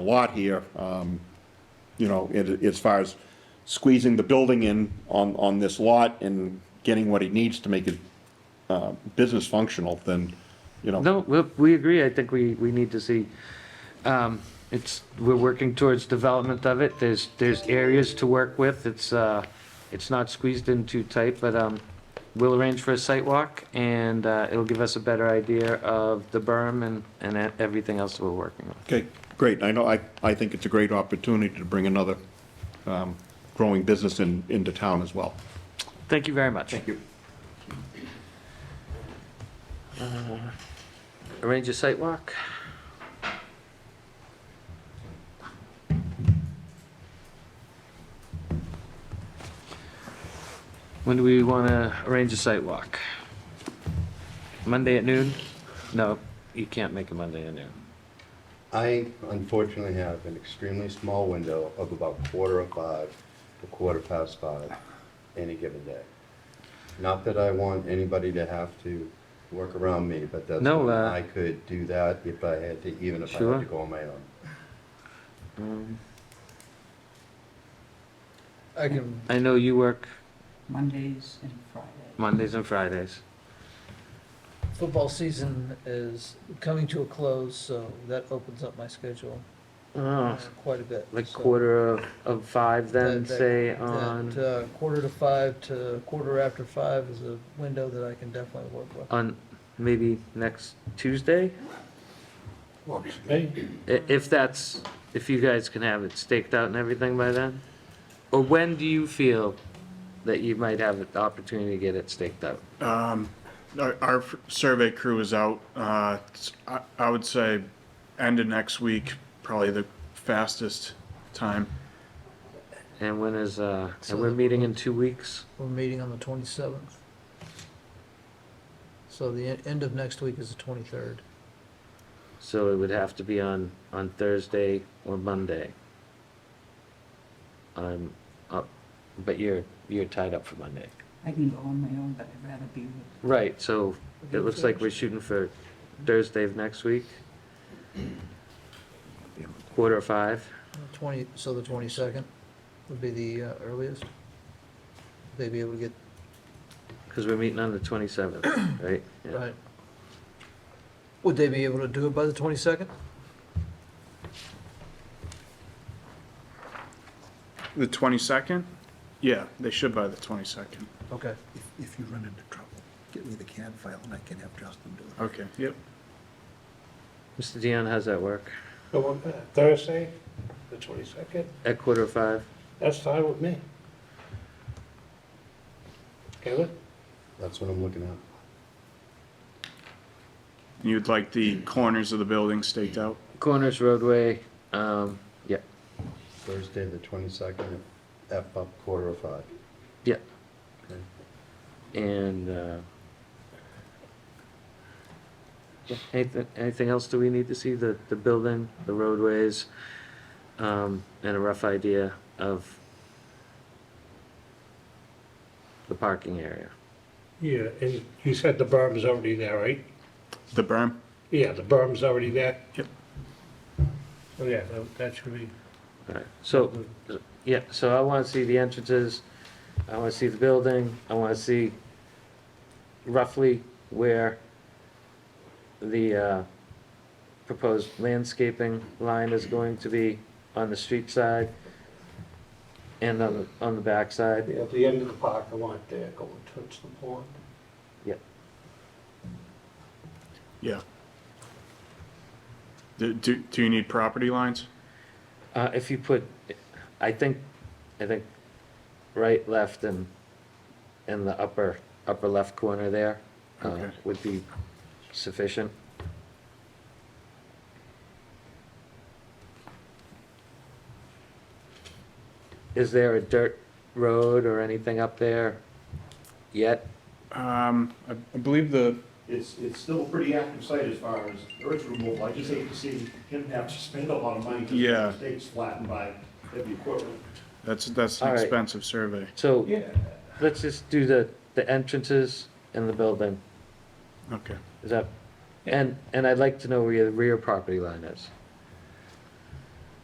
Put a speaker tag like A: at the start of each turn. A: a lot here, um, you know, it- as far as squeezing the building in on, on this lot and getting what he needs to make it uh, business functional, then, you know,
B: No, we, we agree. I think we, we need to see, um, it's, we're working towards development of it. There's, there's areas to work with. It's, uh, it's not squeezed in too tight, but, um, we'll arrange for a site walk and, uh, it'll give us a better idea of the berm and, and e- everything else we're working on.
A: okay, great. I know, I, I think it's a great opportunity to bring another um, growing business in, into town as well.
B: Thank you very much. Thank
A: you.
B: Uh, Arrange a site walk. When do we want to arrange a site walk? Monday at noon? No, you can't make a Monday at noon.
C: I unfortunately have an extremely small window of about quarter of five to quarter past five any given day. Not that I want anybody to have to work around me, but that's
B: No,
C: when
B: uh,
C: I could do that if I had to, even if I
B: Sure.
C: had to go on my own.
D: I can,
B: I know you work
E: Mondays and Fridays.
B: Mondays and Fridays.
D: football season is coming to a close, so that opens up my schedule uh, quite a bit.
B: Like
D: so
B: quarter of- of five then,
D: That- that-
B: say
D: that,
B: on,
D: uh, Quarter to five to quarter after five is a window that I can definitely work with.
B: on maybe next Tuesday?
F: Works for me.
B: I- If that's, if you guys can have it staked out and everything by then? Or when do you feel that you might have the opportunity to get it staked out?
F: Um, Our, our f- survey crew is out, uh, it's- I, I would say end of next week, probably the fastest time.
B: And when is, uh,
D: So
B: and we're
D: the-
B: meeting in two weeks?
D: We're meeting on the 27th. So the en- end of next week is the 23rd.
B: So it would have to be on, on Thursday or Monday. I'm up, but you're, you're tied up for Monday.
E: I can go on my own, but I'd rather be with
B: Right, so it looks like we're shooting for Thursday of next week? Quarter of five?
D: 20, so the 22nd would be the uh, earliest. They'd be able to get,
B: Because we're meeting on the 27th, right? Yeah.
D: right. Would they be able to do it by the 22nd?
F: The twenty-second? Yeah, they should by the twenty-second.
D: Okay.
G: If, if you run into trouble, get me the CAD file and I can have Justin do it.
F: Okay, yep.
B: Mr. Dion, how's that work?
H: So on that Thursday, the twenty-second,
B: At quarter of five?
H: that's fine with me. Kevin?
C: That's what I'm looking at.
F: You'd like the corners of the building staked out?
B: Corners, roadway, um, yeah,
C: Thursday, the twenty-second, F up quarter of five.
B: yeah.
C: Okay.
B: And, uh, yeah, anything, anything else do we need to see? The, the building, the roadways, um, and a rough idea of the parking area?
H: Yeah, and you said the berm's already there, right?
F: The berm?
H: Yeah, the berm's already there?
F: Yep.
H: Oh, yeah, that- that should be,
B: Alright, so, yeah, so I wanna see the entrances, I wanna see the building, I wanna see roughly where the, uh, proposed landscaping line is going to be on the street side and on the, on the back side.
H: at the end of the park, I want there going towards the pond.
F: Yeah. Do, do, do you need property lines?
B: Uh, if you put, I think, I think right, left, and, and the upper, upper left corner there, uh,
F: Okay.
B: would be sufficient. Is there a dirt road or anything up there yet?
F: Um, I I believe the,
I: It's, it's still a pretty active site as far as earth removal. I just hate to see him have to spend a lot of money to
F: Yeah.
I: the state's flattened by heavy equipment.
F: that's, that's
B: All
F: an
B: right.
F: expensive survey.
B: So,
I: Yeah.
B: let's just do the, the entrances and the building.
F: Okay.
B: Is that, and, and I'd like to know where your rear property line is.